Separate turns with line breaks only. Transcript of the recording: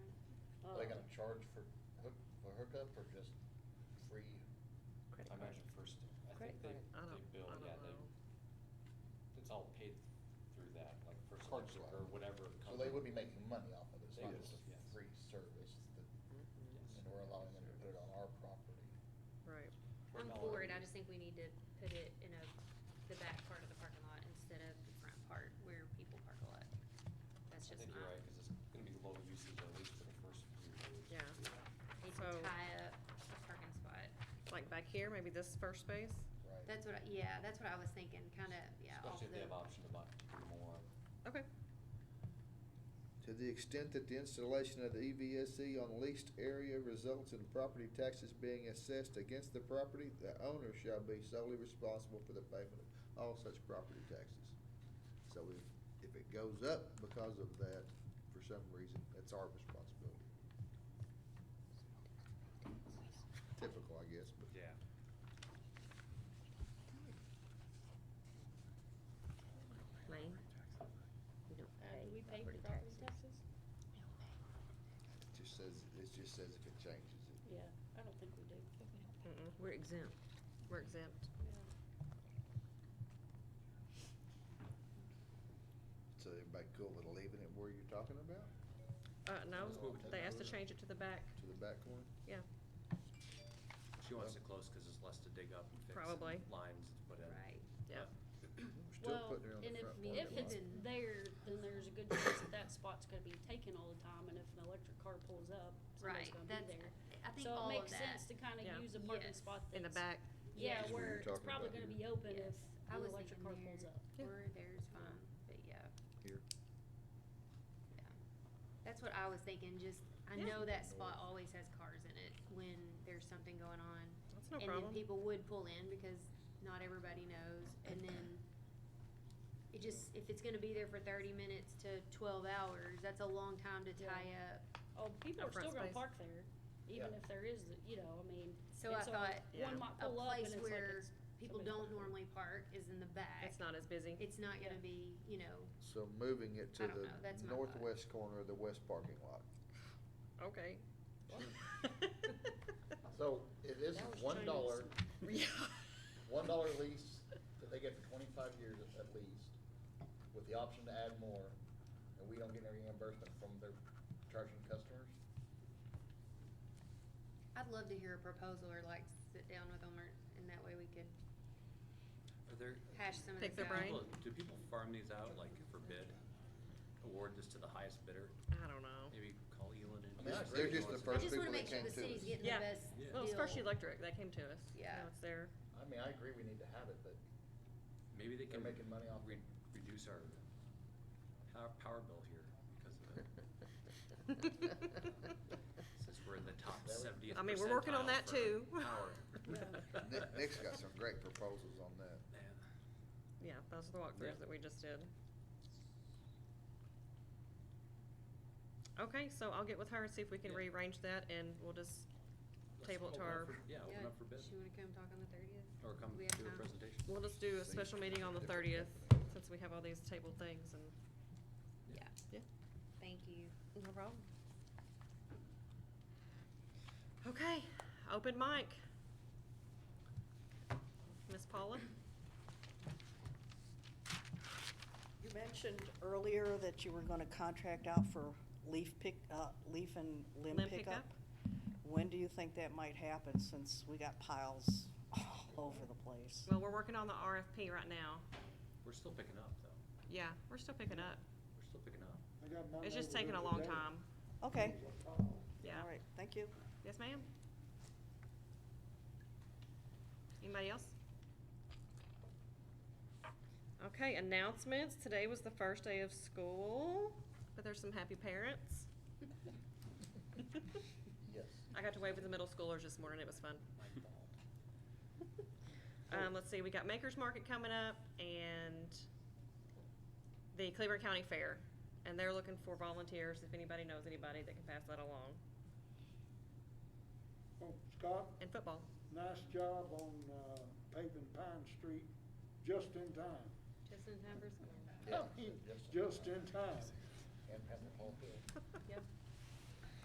Oh.
Oh.
charge for hook, for hookup or just free?
Credit
I
card.
imagine first, I think
Credit
they,
I
card.
they
don't-
bill,
I don't
yeah, they,
know.
it's all paid through that, like first
Card
election
swap.
or whatever.
So they
company.
would be making money off of it, it's
They
not
would,
just a
yes.
free service
Yes.
that, and we're allowing them to put it on our property.
Right.
We're
I'm
not
for it,
allowed
I
to-
just think we need to put it in a, the back part of the parking lot instead of the front part where people park a lot. That's
I
just
think you're
not,
right, because it's gonna be low usage at least for the first few years.
Yeah.
they
So-
tie up the parking spot.
Like back here, maybe this first space?
Right.
That's what, I- yeah, that's what I was thinking, kinda, yeah. off
Especially if they
the-
have option to buy do more.
Okay.
To the extent that the installation of the E EVSE on leased area results in property taxes being assessed against the property, the owner shall be solely responsible for the payment of all such property taxes. So if, if it goes up because of that, for some reason, that's our responsibility. Typical, I guess, but.
Lane? We don't pay property taxes.
No,
It Just says, it just says if it changes it.
Yeah, I don't think we do.
Mm-mm, we're exempt. We're exempt.
So everybody cool with leaving it where you're talking about,
Uh,
Let's
no,
move it to
they asked to
the-
change it to the back,
to the back corner?
yeah.
She wants it close because it's less to dig up and fix. and
Probably.
Lines, whatever.
Right.
Yeah.
We're still
Well,
putting it on
and
the
if,
front
mean,
if
parking
it's
lot.
lot.
there, then there's a good chance that that spot's gonna be taken all the time, and if an electric car pulls up, somebody's
Right,
gonna be there.
that's- I think all of
So it makes
that.
sense to
Yeah.
kinda use a parking
Yes.
spot that's.
In the back,
Yeah,
Yes.
where it's
Talking
probably
about
gonna
here.
be open
Yes,
if
I
an
was
electric car
thinking
pulls
there,
up.
Yeah.
Or there's fine, but yeah,
Here.
yeah. That's what I was thinking, just, I
Yeah.
know that spot always has cars in it when there's something going on.
That's no
And
problem.
then people would pull in because not everybody knows, and then it just, if it's gonna be there for thirty minutes to twelve hours, that's a long time to tie
Yeah.
up.
Oh, people
Our
are still
front
gonna
space.
park there, even
Yeah.
if there is, the- you know, I mean.
So I
it's a-
thought,
Yeah.
One might
a
pull up and it's
place
like
where
it's
people
somebody's
don't
parking.
normally park is in the back.
it's not as busy.
It's not gonna
Yeah.
be, you know,
So moving it
I
to
don't know,
the
that's my thought.
northwest corner of the west parking lot.
Okay.
So if this
That
is
was
one dollar,
Yeah.
one dollar lease that they get for twenty-five years at- at least, with the option to add more, and we don't get any reimbursement from their charging customers,
I'd love to hear a proposal or like sit down with them or, and that way we could
Are there?
hash some of
Pick
this
their
out.
brain.
People- Do people farm these out, like for bid? Award this to the highest bidder?
I don't know.
Maybe call Elon and.
I mean,
They're just
I
the first
just
people
wanna make
that
sure
came
the
to
city's
us.
getting the
Yeah.
best deal.
Yeah.
Well, it's First Electric, that came to us.
Yeah.
Now it's there.
I mean, I agree we need to have it, but
Maybe they
They're
can.
making money off-
re- Reduce our power, power bill here because of it, since we're in the top
There we-
seventieth percentile.
I mean, we're working on that
for
too.
Power.
Nick- Nick's got some great proposals on that.
Man,
Yeah, those are the
Yeah.
walkthroughs that we just did. Okay, so I'll get with her and see if we can
Yeah.
rearrange that and we'll just
let's
table it to
open up
our,
for- Yeah, open up for bid,
She wanna come talk on the thirtieth?
or come do a presentation.
we'll just do a special meeting on the
Different
thirtieth,
company.
since we have all these tabled things and,
Yeah,
yeah,
thank you.
no problem. Okay, open mic. Miss Paula?
You mentioned earlier that you were gonna contract out for leaf pick, uh, leaf and limb
Limb
pickup.
pickup?
When do you think that might happen, since we got piles all over the place?
Well, we're working on the RFP right now.
We're still picking up, though,
Yeah, we're still picking up.
we're still picking up.
It's just taking a long time.
Okay, all
Yeah.
right, thank you.
Yes, ma'am. Anybody else? Okay, announcements. Today was the first day of school, but there's some happy parents.
yes.
I got to wave at the middle schoolers this morning. It was fun.
My fault.
Um, let's see, we got Maker's Market coming up and the Cleveland County Fair. And they're looking for volunteers, if anybody knows anybody that can pass that along.
Well, Scott,
And football.
nice job on uh, paving Pine Street just in time.
Just in time for school.
Yeah,
Just in time.
And Pamela Paul Hill.
Yep.